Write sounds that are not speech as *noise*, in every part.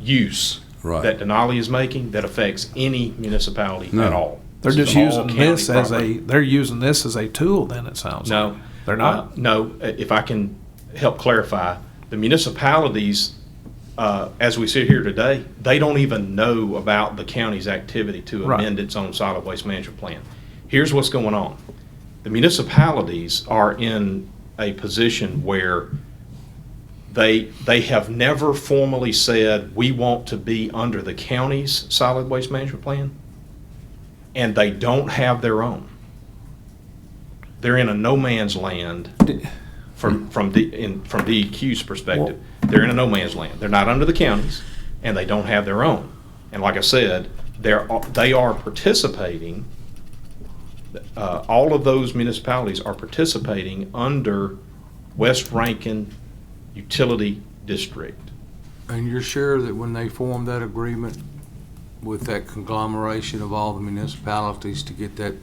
use Right. that Denali is making that affects any municipality No. at all. They're This just is all using county this as a, property. they're using this as a tool then, it sounds like. No. They're not? Uh, No, i- if I can help clarify, the municipalities, uh, as we sit here today, they don't even know about the county's activity to Right. amend its own solid waste management plan. Here's what's going on. The municipalities are in a position where they, they have never formally said, we want to be under the county's solid waste management plan, and they don't have their own. They're in a no man's land from, from, D- in, from DEQ's perspective. They're in a no man's land. They're not under the counties, and they don't have their own. And like I said, they're, they are participating, uh, all of those municipalities are participating under West Rankin Utility District. And you're sure that when they formed that agreement with that conglomeration of all the municipalities to get that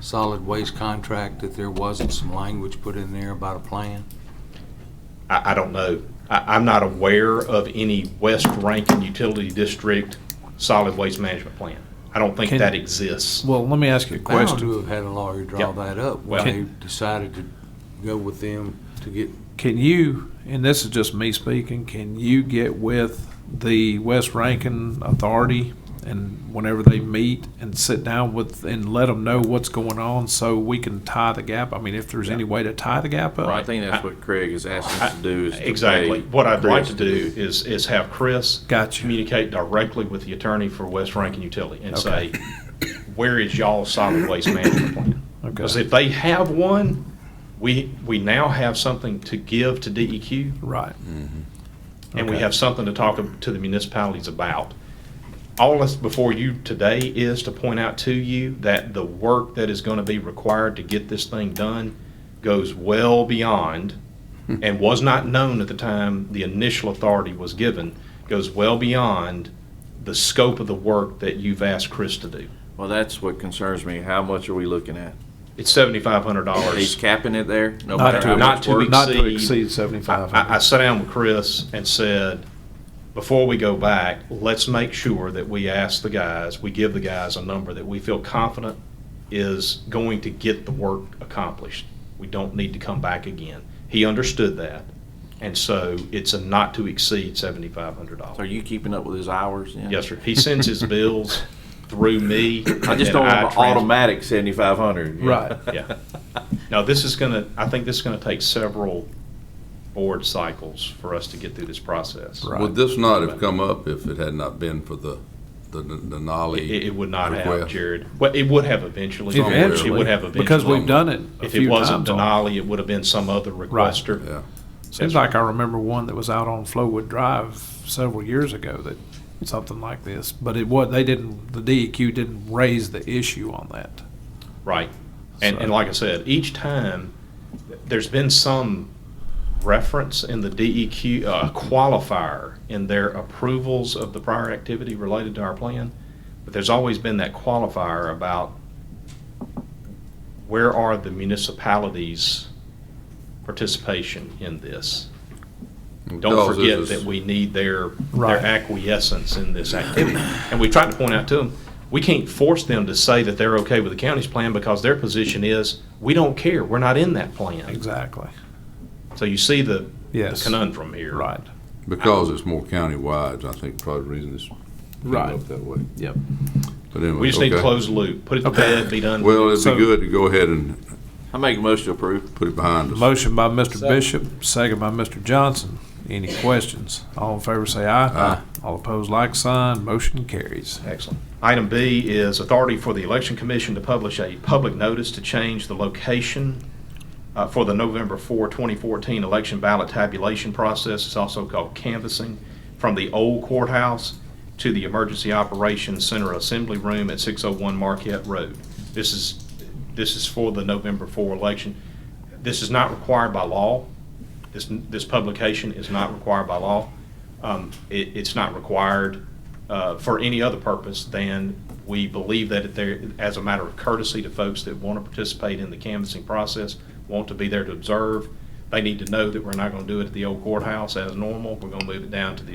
solid waste contract, that there wasn't some language put in there about a plan? I, I don't know. I, I'm not aware of any West Rankin Utility District solid waste management plan. I don't think Can- that exists. Well, let me ask you a Bound question. to have had a lawyer draw Yep. that up Well- when they decided to go with them to get, Can you, and this is just me speaking, can you get with the West Rankin Authority and whenever they meet and sit down with, and let them know what's going on so we can tie the gap? I mean, if there's any way to tie the gap up? I think that's what Craig is asking us to do is to pay Exactly. What I'd like Chris to do is, is have Chris. Gotcha. Communicate directly with the attorney for West Rankin Utility and say, where is y'all's solid waste management plan? Because Okay, if they have one, we, we now have something to give to E DEQ. right. and we Okay. have something to talk to the municipalities about. All that's before you today is to point out to you that the work that is going to be required to get this thing done goes well beyond, and was not known at the time the initial authority was given, goes well beyond the scope of the work that you've asked Chris to do. Well, that's what concerns me. How much are we looking at? It's seventy-five hundred He's dollars. capping it there? No Not matter to- how not much to work? Not to exceed- exceed I, seventy-five I- I hundred. sat down with Chris and said, before we go back, let's make sure that we ask the guys, we give the guys a number that we feel confident is going to get the work accomplished. We don't need to come back again. He understood that. And so it's a not to exceed seventy-five hundred So Are dollars. you keeping up with his hours? then? Yes, sir. He sends his bills through me. *coughs* I just don't want an automatic seventy-five hundred. Right. Yeah. Now, this is gonna, I think this is gonna take several board cycles for us to get through this process. Right. Would this not have come up if it had not been for the, the Denali? It, it would not have, request? Jared. Well, it would have eventually. Eventually. It would have eventually. Because we've done it a If few it wasn't times. already. Denali, it would have been some other requester. Yeah, Seems like I remember one that was out on Flowwood Drive several years ago that something like this, but it was, they didn't, the DEQ didn't raise the issue on that. Right. And, and So- like I said, each time, there's been some reference in the DEQ, uh, qualifier in their approvals of the prior activity related to our plan, but there's always been that qualifier about where are the municipalities' participation in this? Don't Because this forget is- that we need their, their Right. acquiescence in this activity. And we tried to point out to them, we can't force them to say that they're okay with the county's plan because their position is, we don't care, we're not in that plan. Exactly. So you see the the Yes. conundrum here. Right. because it's more countywide, I think probably the reason it's ended Right. up that way. Yep. But anyway, We just need to okay. close the loop, put it to Okay. bed, be done. with it. Well, it'd So- be good to go ahead and I make a motion to approve. put it behind us. Motion by Mr. Bishop, second by Mr. Johnson. Any questions? All in favor say aye. Aye. All opposed, like sign. Motion carries. Excellent. Item B is authority for the Election Commission to publish a public notice to change the location uh, for the November 4, 2014 election ballot tabulation process. It's also called canvassing from the old courthouse to the Emergency Operations Center Assembly Room at 601 Marquette Road. This is, this is for the November 4 election. This is not required by law. This, this publication is not required by law. Um, It, it's not required uh, for any other purpose than we believe that it there, as a matter of courtesy to folks that want to participate in the canvassing process, want to be there to observe, they need to know that we're not going to do it at the old courthouse as normal. We're going to move it down to the